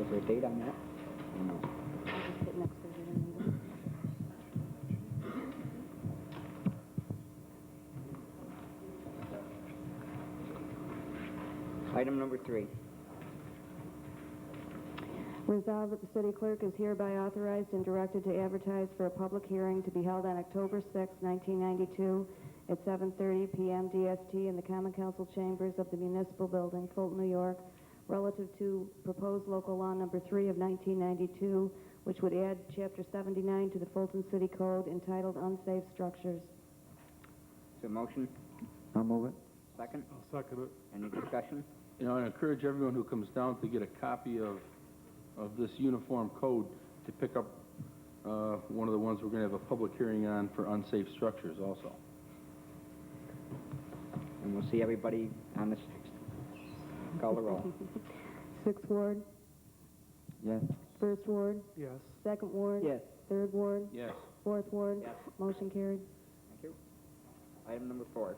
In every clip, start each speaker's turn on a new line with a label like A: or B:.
A: Is there a date on that? No. Item number three.
B: Resolved that the city clerk is hereby authorized and directed to advertise for a public hearing to be held on October 6, 1992, at 7:30 p.m. DST in the Common Council Chambers of the Municipal Building, Fulton, New York, relative to proposed local law number 3 of 1992, which would add Chapter 79 to the Fulton City Code entitled Unsafe
A: Is
B: Structures.
A: there a motion?
C: I'll move it.
A: Second?
D: I'll second it.
A: Any discussion?
E: You know, I encourage everyone who comes down to get a copy of, of this uniform code to pick up, uh, one of the ones we're gonna have a public hearing on for unsafe structures also.
A: And we'll see everybody on the sixth. Call the roll.
B: Sixth Ward,
C: Yes.
B: First Ward,
D: Yes.
B: Second Ward.
A: Yes.
B: Third Ward,
E: Yes.
B: Fourth Ward.
A: Yes.
B: Motion carried.
A: Thank you. Item number four.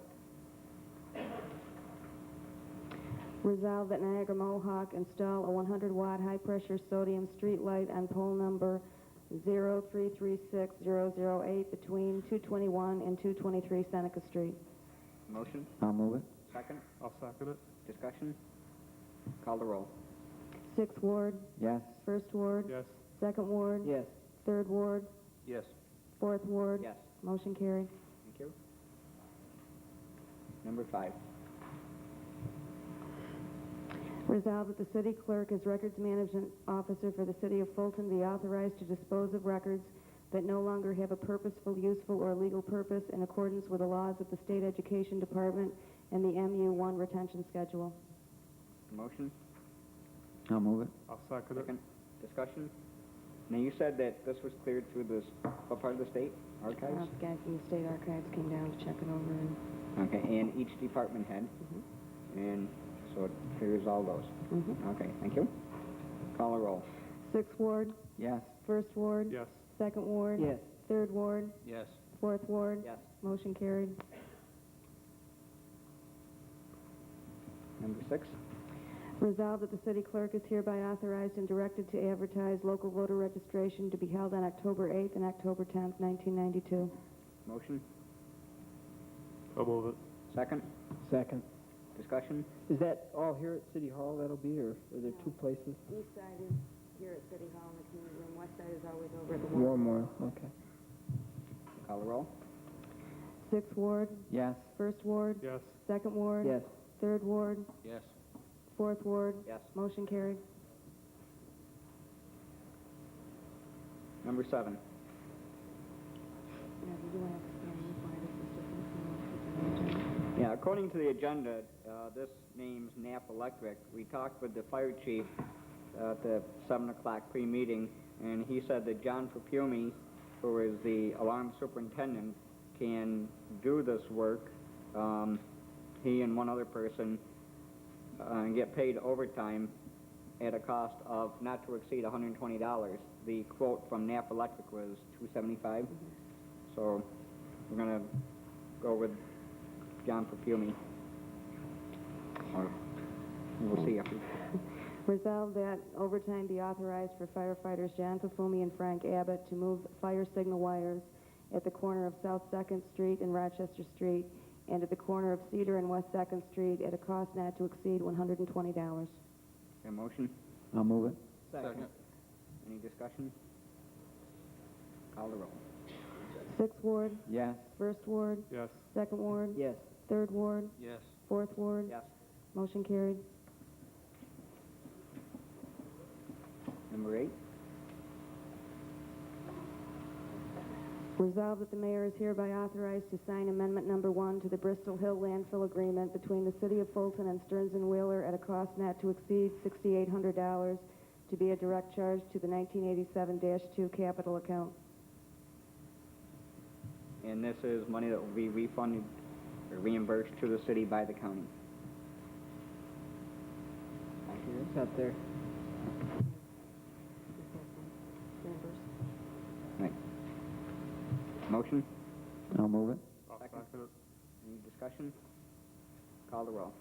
B: Resolve that Niagara Mohawk install a 100-watt high-pressure sodium street light on pole number 0336008 between 221 and 223 Seneca Street.
A: Motion?
C: I'll move it.
A: Second?
D: I'll second it.
A: Discussion? Call the roll.
B: Sixth Ward,
C: Yes.
B: First Ward,
D: Yes.
B: Second Ward,
A: Yes.
B: Third Ward,
E: Yes.
B: Fourth Ward.
A: Yes.
B: Motion carried.
A: Thank you. Number five.
B: Resolved that the city clerk as records management officer for the city of Fulton be authorized to dispose of records that no longer have a purposeful, useful, or legal purpose in accordance with the laws of the state education department and the MU1 retention schedule.
A: Motion?
C: I'll move it.
D: I'll second it.
A: Second? Discussion? Now, you said that this was cleared through this, what part of the state?
B: Uh,
A: Archives?
B: the guy from the state archives came down to check it over and,
A: Okay, and each department head? And so it clears all those? Okay, thank you. Call the roll.
B: Sixth Ward,
C: Yes.
B: First Ward.
D: Yes.
B: Second Ward.
A: Yes.
B: Third Ward,
E: Yes.
B: Fourth Ward.
A: Yes.
B: Motion carried.
A: Number six.
B: Resolved that the city clerk is hereby authorized and directed to advertise local voter registration to be held on October 8th and October 10th, 1992.
A: Motion?
D: I'll move it.
A: Second?
F: Second.
A: Discussion?
F: Is that all here at City Hall that'll be, or are there two places?
B: East side is here at City Hall in the community room, west side is always over at the
F: Warmore, okay.
A: Call the roll.
B: Sixth Ward,
C: Yes.
B: First Ward,
D: Yes.
B: Second Ward.
F: Yes.
B: Third Ward,
E: Yes.
B: Fourth Ward.
A: Yes.
B: Motion carried.
A: Number seven. Yeah, according to the agenda, uh, this name's Nap Electric. We talked with the fire chief uh, at the seven o'clock pre-meeting, and he said that John Propiumi, who is the alarm superintendent, can do this work, um, he and one other person, uh, and get paid overtime at a cost of not to exceed hundred and twenty dollars. The quote from Nap Electric was two seventy-five, so we're gonna go with John Perfume. Or, we'll see after.
B: Resolved that overtime be authorized for firefighters John Pafumi and Frank Abbott to move fire signal wires at the corner of South Second Street and Rochester Street and at the corner of Cedar and West Second Street at a cost not to exceed one hundred and twenty dollars.
A: A motion?
C: I'll move it.
E: Second.
A: Any discussion? Call the roll.
B: Sixth Ward,
C: Yes.
B: First Ward,
D: Yes.
B: Second Ward,
A: Yes.
B: Third Ward,
E: Yes.
B: Fourth Ward.
A: Yes.
B: Motion carried.
A: Number eight.
B: Resolved that the mayor is hereby authorized to sign amendment number one to the Bristol Hill landfill agreement between the city of Fulton and Stearns and Wheeler at a cost not to exceed sixty-eight hundred dollars to be a direct charge to the nineteen eighty-seven two capital account.
A: And this is money that will be refunded or reimbursed to the city by the county.
F: It's out there.
A: Right. Motion?
C: I'll move it.
D: I'll
A: Second.
D: second it.
A: Any discussion? Call the roll.